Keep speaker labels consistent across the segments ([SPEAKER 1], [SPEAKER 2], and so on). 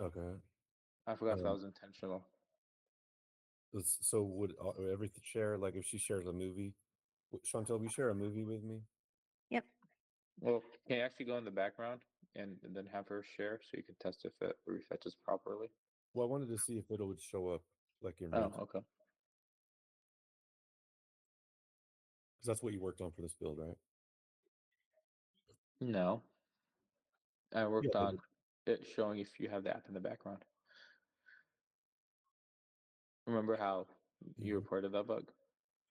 [SPEAKER 1] Okay.
[SPEAKER 2] I forgot if that
[SPEAKER 1] Um,
[SPEAKER 2] was intentional.
[SPEAKER 1] Let's- So would uh, would every share like if she shares a movie? w- Chantel, will you share a movie with me?
[SPEAKER 2] Well, can you actually go in the background and, and then have her share so you can test if it refetches properly?
[SPEAKER 1] Well, I wanted to see if it would show up like in
[SPEAKER 2] Oh,
[SPEAKER 3] Um,
[SPEAKER 1] because
[SPEAKER 2] okay.
[SPEAKER 1] that's what you worked on for this build, right?
[SPEAKER 2] No. I worked
[SPEAKER 1] but
[SPEAKER 2] on it showing if you have the app in the background. Remember how you
[SPEAKER 1] Mhm.
[SPEAKER 2] reported that bug?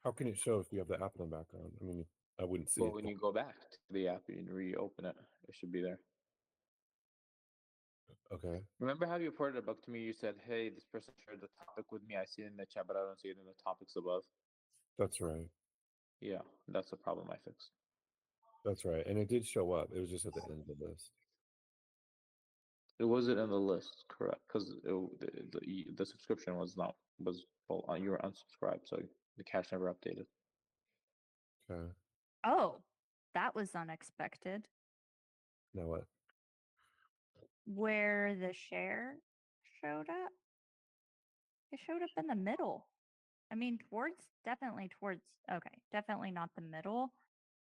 [SPEAKER 1] How can it show if you have the app in the background? I mean, I wouldn't see
[SPEAKER 2] Well,
[SPEAKER 1] it.
[SPEAKER 2] when you go back to the app and reopen it, it should be there.
[SPEAKER 1] Okay.
[SPEAKER 2] Remember how you reported a bug to me? You said, "Hey, this person shared the topic with me. I see it in the chat, but I don't see it in the topics above."
[SPEAKER 1] That's right.
[SPEAKER 2] Yeah, that's the problem I fixed.
[SPEAKER 1] That's right. And it did show up. It was just at the end of the list.
[SPEAKER 2] It wasn't in the list, correct? Because the, the y- the subscription was not was well, uh, you were unsubscribed, so the cache never updated.
[SPEAKER 1] Okay.
[SPEAKER 3] Oh, that was unexpected.
[SPEAKER 1] Now what?
[SPEAKER 3] Where the share showed up, it showed up in the middle. I mean, towards definitely towards, okay, definitely not the middle,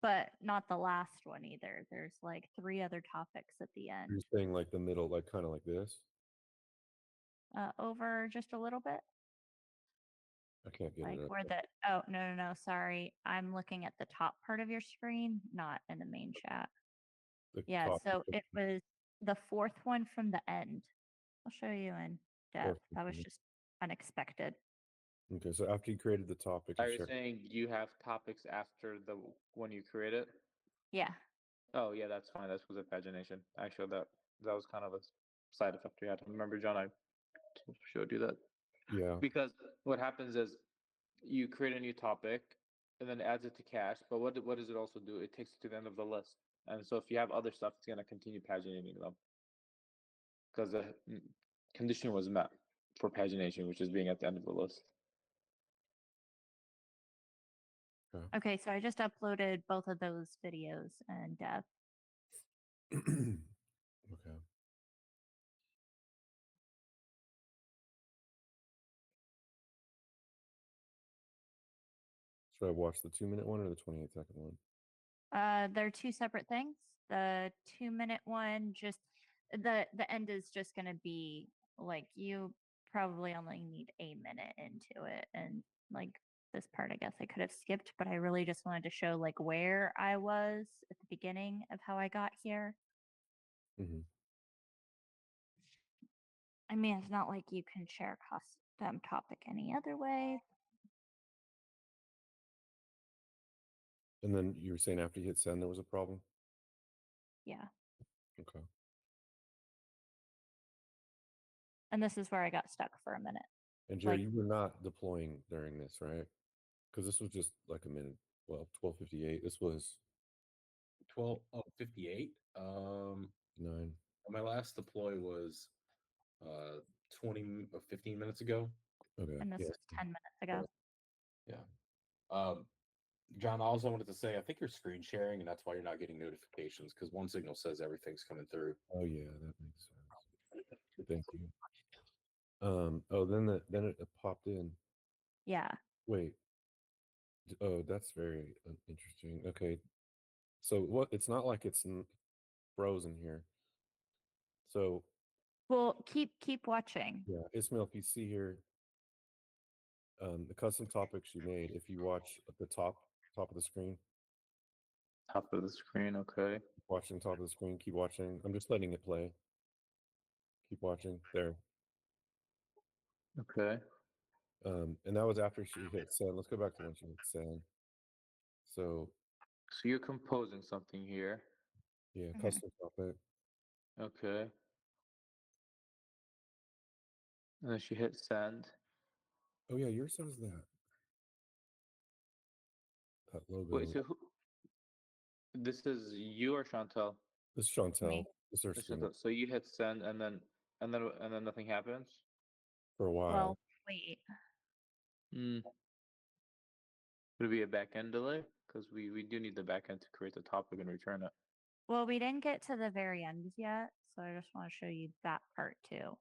[SPEAKER 3] but not the last one either. There's like three other topics at the
[SPEAKER 1] You're
[SPEAKER 3] end.
[SPEAKER 1] saying like the middle, like kind of like this?
[SPEAKER 3] Uh, over just a little bit,
[SPEAKER 1] I can't get
[SPEAKER 3] like
[SPEAKER 1] it. up
[SPEAKER 3] where
[SPEAKER 1] there.
[SPEAKER 3] the, oh, no, no, no, sorry. I'm looking at the top part of your screen, not in the main chat.
[SPEAKER 1] The
[SPEAKER 3] Yeah,
[SPEAKER 1] top
[SPEAKER 3] so
[SPEAKER 1] of
[SPEAKER 3] it was the fourth one from the end. I'll show you in depth.
[SPEAKER 1] one
[SPEAKER 3] That was
[SPEAKER 1] from the-
[SPEAKER 3] just unexpected.
[SPEAKER 1] the- Okay. So after you created the topic,
[SPEAKER 2] Are
[SPEAKER 1] you
[SPEAKER 2] you
[SPEAKER 1] shared-
[SPEAKER 2] saying you have topics after the w- when you create it?
[SPEAKER 3] Yeah.
[SPEAKER 2] Oh yeah, that's fine. That was a pagination. I showed that. That was kind of a s- side effect we had. Remember, John, I t- showed you that
[SPEAKER 1] yeah.
[SPEAKER 2] because what happens is you create a new topic and then adds it to cache. But what what does it also do? It takes it to the end of the list, and so if you have other stuff, it's gonna continue paginating them because the mm, condition was met for pagination, which is being at the end of the list.
[SPEAKER 3] Okay, so I just uploaded both of those videos in depth.
[SPEAKER 1] okay. Should I watch the two minute one or the 28 second one?
[SPEAKER 3] Uh, they're two separate things. The two minute one just the the end is just gonna be like you probably only need a minute into it and like this part I guess I could have skipped, but I really just wanted to show like where I was at the beginning of how I got here.
[SPEAKER 1] Mhm.
[SPEAKER 3] I mean it's not like you can share a custom topic any other way.
[SPEAKER 1] And then you were saying after you hit send, there was a problem?
[SPEAKER 3] Yeah.
[SPEAKER 1] Okay.
[SPEAKER 3] And this is where I got stuck for a minute.
[SPEAKER 1] And Jerry,
[SPEAKER 3] Like-
[SPEAKER 1] you were not deploying during this, right? Because this was just like a minute, well, 1258. This was
[SPEAKER 4] 12 oh 58 um
[SPEAKER 1] nine.
[SPEAKER 4] my last deploy was uh 20 m- or 15 minutes ago
[SPEAKER 1] Okay.
[SPEAKER 3] And this
[SPEAKER 1] yeah.
[SPEAKER 3] was ten minutes ago.
[SPEAKER 4] um john i also wanted to say i think you're screen sharing and that's why you're not getting notifications because one signal says everything's coming through
[SPEAKER 1] Oh yeah, that makes sense. Thank you. Um. Oh, then the then it popped in.
[SPEAKER 3] Yeah.
[SPEAKER 1] Wait. D- Oh, that's very uh, interesting. Okay. So what? It's not like it's n- frozen here. So
[SPEAKER 3] Well, keep keep watching.
[SPEAKER 1] yeah, Ismail, if you see here, um, the custom topics you made. If you watch at the top top of the screen,
[SPEAKER 2] Top of the screen, okay.
[SPEAKER 1] watching top of the screen, keep watching. I'm just letting it play. Keep watching there.
[SPEAKER 2] Okay.
[SPEAKER 1] Um, and that was after she hit send. Let's go back to when she hit send. So
[SPEAKER 2] So you're composing something here.
[SPEAKER 1] yeah,
[SPEAKER 3] Mhm.
[SPEAKER 1] custom topic.
[SPEAKER 2] Okay. And then she hit send.
[SPEAKER 1] Oh yeah, yours says that. That logo.
[SPEAKER 2] Wait, so who? This is you or Chantel?
[SPEAKER 1] this is Chantel. This is her
[SPEAKER 2] Or
[SPEAKER 1] screen
[SPEAKER 2] Chantel? So you hit send, and then and then and then nothing happens.
[SPEAKER 1] for a while.
[SPEAKER 3] Well, wait.
[SPEAKER 2] Mm. Would it be a back end delay? Because we we do need the back end to create the topic and return it.
[SPEAKER 3] Well, we didn't get to the very end yet, so I just want to show you that part too.